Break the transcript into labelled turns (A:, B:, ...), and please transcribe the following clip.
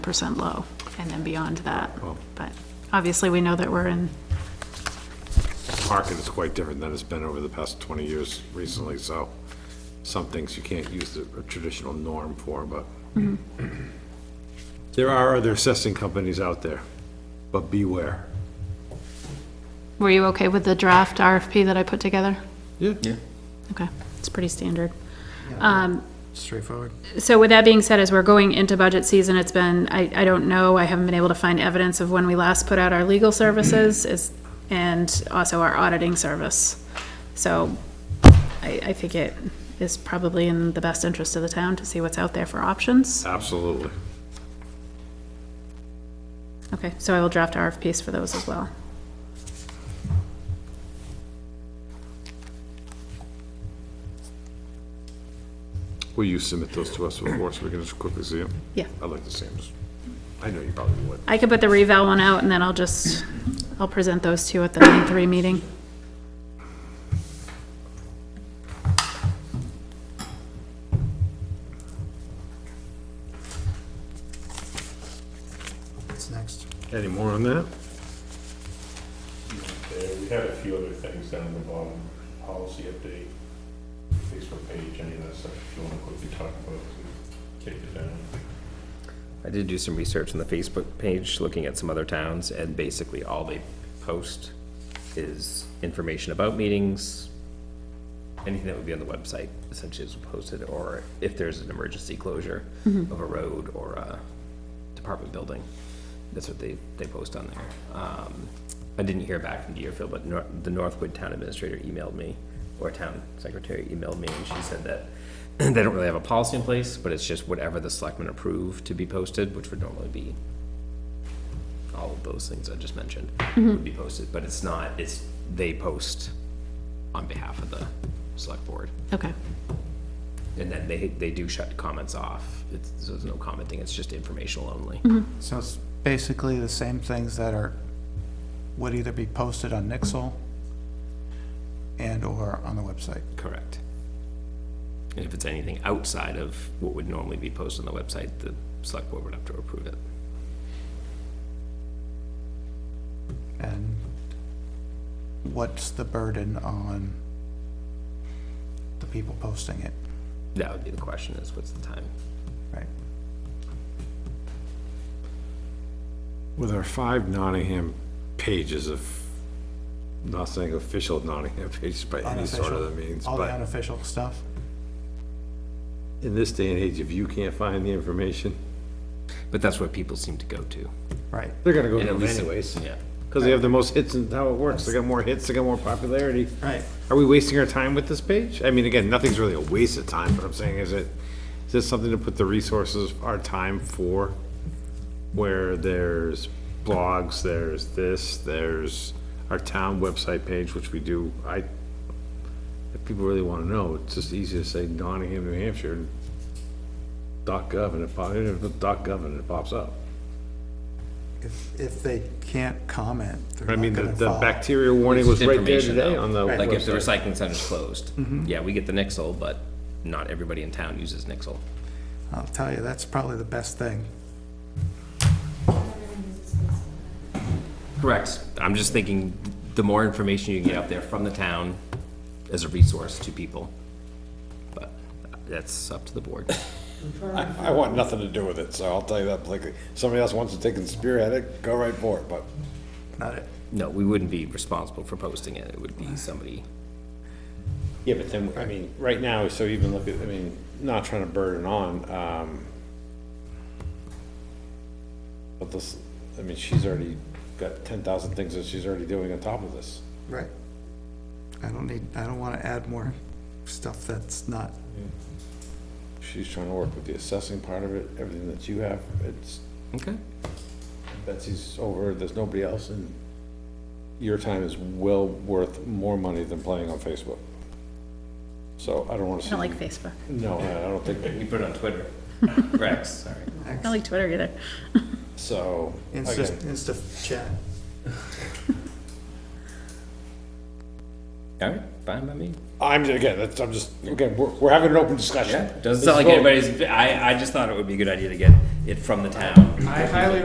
A: percent low, and then beyond that. But obviously, we know that we're in,
B: market is quite different than it's been over the past 20 years recently, so some things you can't use the traditional norm for, but there are other assessing companies out there, but beware.
A: were you okay with the draft RFP that I put together?
B: Yeah.
A: Okay, it's pretty standard. Um,
C: Straightforward.
A: So with that being said, as we're going into budget season, it's been, I, I don't know, I haven't been able to find evidence of when we last put out our legal services is, and also our auditing service. So I, I think it is probably in the best interest of the town to see what's out there for options.
B: Absolutely.
A: Okay, so I will draft RFPs for those as well.
B: Will you submit those to us before, so we can just quickly see them?
A: Yeah.
B: I'd like to see them. I know you probably would.
A: I could put the reval one out and then I'll just, I'll present those two at the nine three meeting.
C: What's next?
B: Any more on that?
D: there. Uh, We have a few other things down at the bottom, Um, policy update, Facebook page, any of that stuff, if you want to quickly talk about, it, kick it down.
E: I did do some research on the Facebook page, looking at some other towns, and basically all they post is information about meetings, anything that would be on the website essentially is posted, or if there's an emergency closure of a road or a department building, that's what they, they post on there. Um, I didn't hear back from Deerfield, but Nor- the Northwood Town Administrator emailed me, or Town Secretary emailed me, and she said that they don't really have a policy in place, but it's just whatever the selectmen approve to be posted, which would normally be all of those things I just mentioned would be posted, but it's not, it's, they post on behalf of the select board.
A: Okay,
E: And then they, they do shut comments off. It's, so there's no commenting, it's just informational only.
C: So it's basically the same things that are, would either be posted on Nixle and/or on the website.
E: Correct. And if it's anything outside of what would normally be posted on the website, the select board would have to approve it.
C: And what's the burden on the people posting it,
E: That would be the question is what's the time?
C: right?
B: With our five Nottingham pages of, not saying official Nottingham pages by any sort of
C: Unofficial-
B: the means,
C: All
B: but.
C: the unofficial stuff?
B: in this day and age, if you can't find the information,
E: But that's what people seem to go to.
C: Right.
B: they're gonna go
E: And
B: to
E: at
B: them
E: least-
B: anyways.
E: Yeah.
B: Because they have the most hits and how it works. They got more hits, they got more popularity.
C: Right.
B: Are we wasting our time with this page? I mean, again, nothing's really a waste of time, but I'm saying is it, is this something to put the resources, our time for? Where there's blogs, there's this, there's our town website page, which we do, I, if people really wanna know, it's just easy to say Nottingham, New Hampshire, and dot gov and it pop, dot gov and it pops up.
C: If, if they can't comment,
B: I
C: they're
B: mean,
C: not
B: the,
C: gonna
B: the
C: follow.
B: bacteria warning was
E: Just
B: right Mm-hmm. there
E: information,
B: today
E: though.
B: on the
E: Like if the
B: website.
E: recycling center's closed, yeah, we get the Nixle, but not everybody in town uses Nixle.
C: I'll tell you, that's probably the best thing.
E: Correct. I'm just thinking, the more information you can get out there from the town as a resource to people. But that's up to the board.
B: I want nothing to do with it, so I'll tell you that Like Somebody else wants to take and spearhead it, go right for it, but.
C: Not it.
E: No, we wouldn't be responsible for posting it. It would be somebody.
B: Yeah, but then, I mean, right now, so even look at, I mean, not trying to burden on, um, but this, I mean, she's already got ten thousand things that she's already doing on top of this.
C: Right. I don't need, I don't wanna add more stuff that's not,
B: She's trying to work with the assessing part of it, everything that you have, it's,
E: Okay.
B: Betsy's over, there's nobody else, and your time is well worth more money than playing on Facebook. So I don't wanna
A: I
B: see.
A: don't like Facebook,
B: No, I don't think,
E: We put it on Twitter. Rex, sorry.
A: I don't like Twitter either.
B: so,
C: Insta,
B: again,
C: Insta chat.
E: All right, fine by me.
B: I'm, again, that's, I'm just, again, we're, we're having an open discussion.
E: Doesn't sound like
B: Let's vote.
E: anybody's, I, I just thought it would be a good idea to get it from the town.
C: I highly